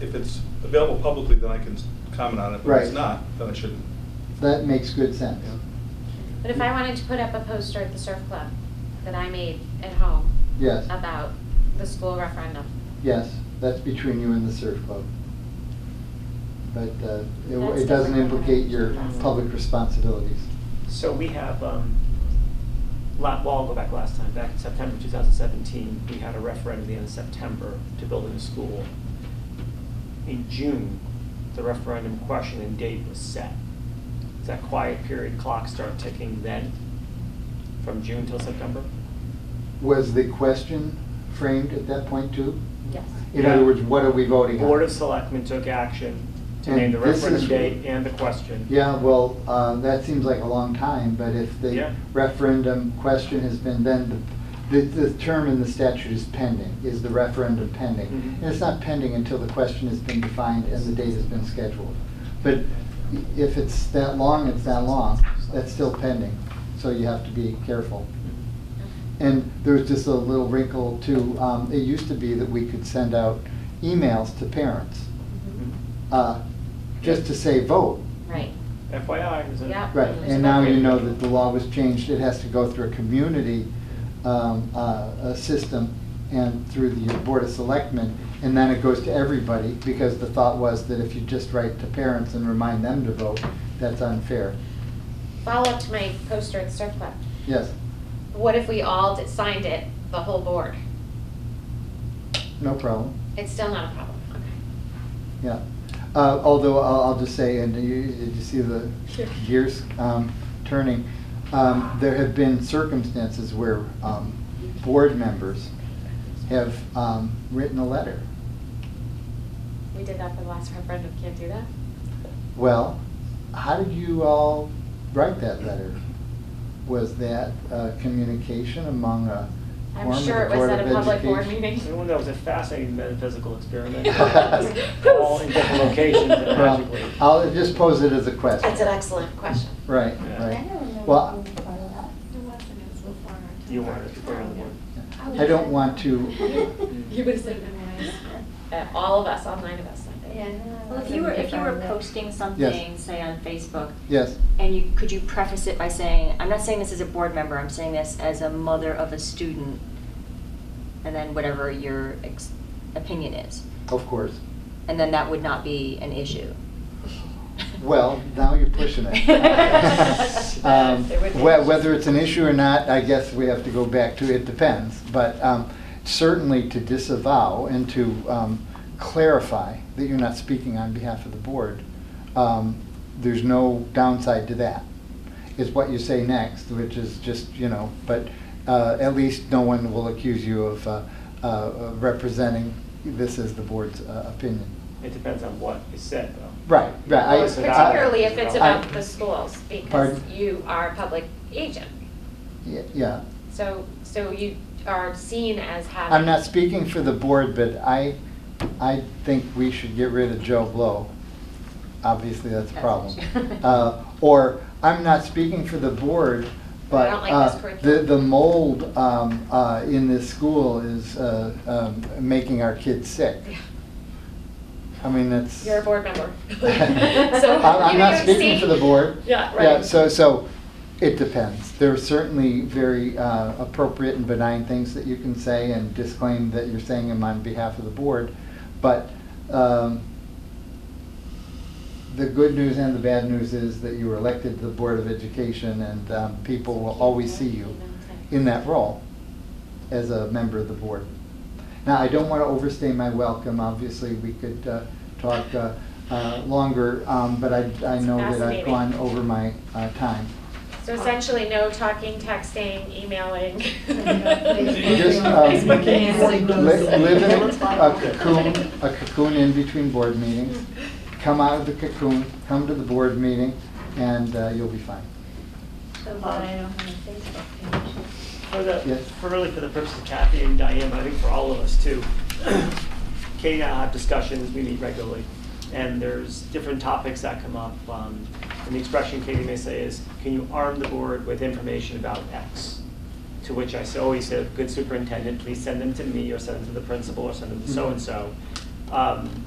if it's available publicly, then I can comment on it. But If Right. it's not, then I shouldn't. That makes good sense. But if I wanted to put up a poster at the surf club that I made at home Yes, about the school referendum, yes, that's between you and the surf club. But uh, it That's it doesn't different. implicate your public responsibilities. So we have, um, la- well, I'll go back last time, back in September 2017, we had a referendum at the end of September to build a new school. In June, the referendum question and date was set. Does that quiet period clock start ticking then, from June till September? Was the question framed at that point too? yes. In Yeah. other words, what are we voting on? Board of Selectmen took action to name the And this is- referendum date and the question. Yeah, well, uh, that seems like a long time, but if the Yeah. referendum question has been, then the, the- the term in the statute is pending, is the referendum pending. Mhm. And it's not pending until the question has been defined and the date has been scheduled. But if it's that long, it's that long, that's still pending, so you have to be careful. Mm-hmm. And there's just a little wrinkle too, um, it used to be that we could send out emails to parents, Mhm. Mhm. uh, just to say vote, Right, FYI, is it? Yeah. Right, and now you know that the law was changed, it has to go through a community um, uh, a system and through the Board of Selectmen, and then it goes to everybody, because the thought was that if you just write to parents and remind them to vote, that's unfair. follow up to my poster at the surf club. Yes, What if we all did- signed it, the whole board? no problem, It's still not a problem, yeah. Uh, Although, I'll I'll just say, and you- did you see the Sure. gears um, turning? Um, There have been circumstances where um, board members okay. have um, written a letter We did that for the last referendum, can't do that? Well, how did you all write that letter? Was that uh, communication among a I'm quorum of sure the it was Board at of a public board Education? meeting. Everyone, that was a fascinating metaphysical experiment. All All in different locations and Well, magically. I'll just pose it as a question. That's an excellent question. Right, Yeah. I right. don't remember Well, being part of that. It wasn't, it was before our time. You weren't, you weren't one. I don't want to, You would have said, uh, all of us, all nine of us signed it. Yeah. Well, if you were, if you were posting something, say on Facebook, yes, and you, could you preface it by saying, I'm not saying this as a board member, I'm saying this as a mother of a student, and then whatever your ex- opinion is, of course. and then that would not be an issue. Well, now you're pushing it. Um, It would be- whe- Whether it's an issue or not, I guess we have to go back to, it depends. But um, certainly to disavow and to um, clarify that you're not speaking on behalf of the board, um, there's no downside to that. Is what you say next, which is just, you know, but uh, at least no one will accuse you of uh, uh, representing this as the board's uh, opinion. It depends on what is said, though. Right, right. I- Well, it's about- Particularly if it's about I- the schools, because Pardon? you are a public agent. Yeah, Yeah. So, so you are seen as having. I'm not speaking for the board, but I, I think we should get rid of Joe Blow. Obviously, that's a That's an problem. issue. Uh, Or, I'm not speaking for the board, But but I don't like this uh, the, curriculum. the mold um, uh, in this school is uh, um, making our kids sick. Yeah. I mean, that's. You're a board member. So, I'm, I'm you not don't speaking see- for the board. Yeah, Yeah, right. so, so, it depends. There are certainly very uh, appropriate and benign things that you can say and disclaim that you're saying them on behalf of the board. But um, the good news and the bad news is that you were elected to the Board of Education and um, people will always see you in that role as a member of the board. Now, I don't want to overstay my welcome, obviously, we could uh, talk uh, uh, longer, um, but I, I know that I've Fascinating. gone over my uh, time. So essentially, no talking, texting, emailing. Just um, li- live in a cocoon, a cocoon in between board meetings, come out of the cocoon, come to the board meeting, and uh, you'll be fine. So, but I don't have a Facebook page. For the, Yes. for really for the purpose of Kathy and Diane, but I think for all of us too. Katie and I have discussions, we meet regularly, and there's different topics that come up. um, And the expression Katie may say is, can you arm the board with information about X? To which I say- always say, good superintendent, please send them to me, or send them to the principal, or send them to so-and-so. Um,